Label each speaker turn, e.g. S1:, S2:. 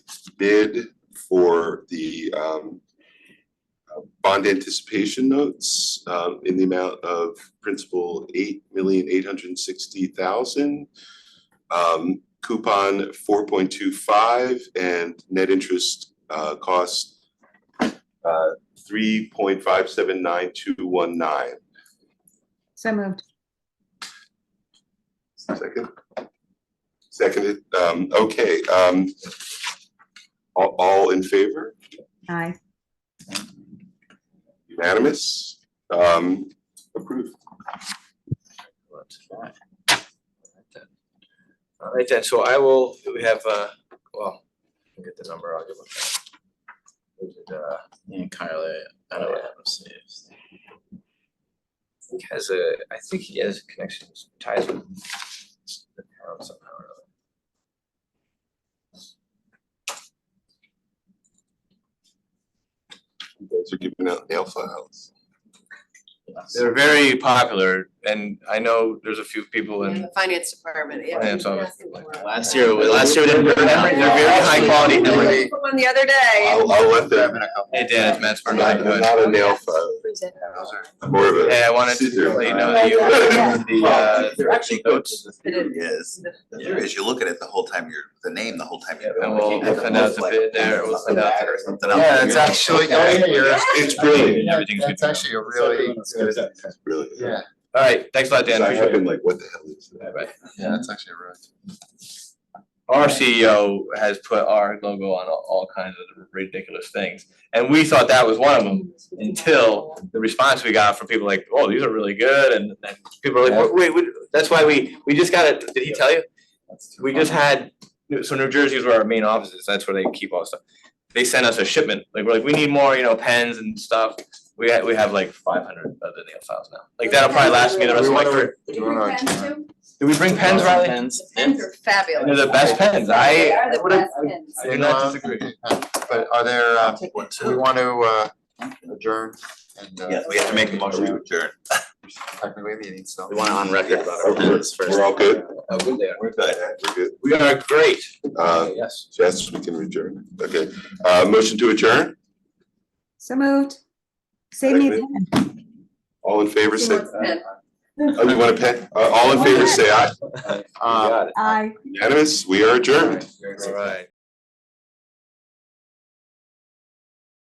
S1: bid for the um uh, bond anticipation notes um in the amount of principal eight million eight hundred and sixty thousand. Um coupon four point two five and net interest uh cost uh three point five seven nine two one nine.
S2: So moved.
S1: Second? Seconded, um, okay, um, all, all in favor,
S2: Aye.
S1: unanimous, um, approved.
S3: Let's try. All right then, so I will, we have, uh, well, I'll get the number, I'll give a. Is it, uh, Ian Carly, I don't know, let's see. if- He has a, I think he has connections, ties with. the town somehow or other.
S1: You guys are giving out nail files.
S3: They're very popular and I know there's a few people
S4: In
S3: in
S4: the finance department, yeah.
S3: Finance
S4: we can
S3: office.
S4: ask him for it.
S3: last year, last year, they're very high quality,
S4: We
S3: number
S4: did One the other day.
S1: I'll, I'll let them,
S3: Hey Dan, it's Matt
S1: I'm
S3: Sparta, by
S1: not,
S3: the way.
S1: I'm not a nail file, I'm more of a.
S3: Hey, I wanted to
S1: scissor.
S3: let you know that you the uh
S5: They're actually good.
S3: notes.
S4: It is.
S5: Yes, the theory is you look at it the whole time you're, the name the whole time you're
S3: And
S5: going.
S3: we'll- we'll send out the bid there, we'll send out
S5: Or something else.
S3: Yeah, it's actually, yeah, you're,
S1: It's brilliant,
S3: everything's good.
S6: That's actually a really good,
S1: it's brilliant.
S6: yeah,
S3: Alright, thanks a lot, Dan,
S1: So I have
S3: appreciate it.
S1: been like, what the hell is that?
S3: Right.
S6: yeah, that's actually a really.
S3: Our CEO has put our logo on all all kinds of ridiculous things, and we thought that was one of them. Until the response we got from people like, oh, these are really good, and and people are like, wait, wait, that's why we, we just got it, did he tell you? we just had, so New Jersey is where our main office is, that's where they keep all the stuff. They sent us a shipment, like we're like, we need more, you know, pens and stuff. We ha- we have like five hundred of the nail files now. Like that'll probably last me the rest of my career.
S4: Did you bring pens too?
S3: Did we bring pens, Riley?
S4: The pens are fabulous.
S3: They're the best pens.
S4: They
S3: I
S4: are the
S3: would have,
S4: best pens.
S3: I do not disagree.
S6: But are there, uh,
S5: Take one,
S6: do we
S5: too.
S6: want to, uh, adjourn and, uh.
S5: Yes, we have to make a motion to adjourn.
S6: Technically meeting, so.
S3: we want it on record about our
S1: We're-
S3: pens first.
S1: We're all good,
S3: Oh, good there.
S5: We're good.
S1: we're good,
S3: We are great.
S1: uh,
S3: Yes.
S1: yes, we can adjourn, okay, uh, motion to adjourn,
S2: So moved. Save me a
S1: Second.
S2: pen.
S1: all in favor,
S4: She
S1: say,
S4: wants pen.
S1: oh, you want a pen, uh, all in favor, say aye,
S3: You
S6: Um,
S3: got it.
S2: Aye.
S1: unanimous, we are adjourned.
S3: All right.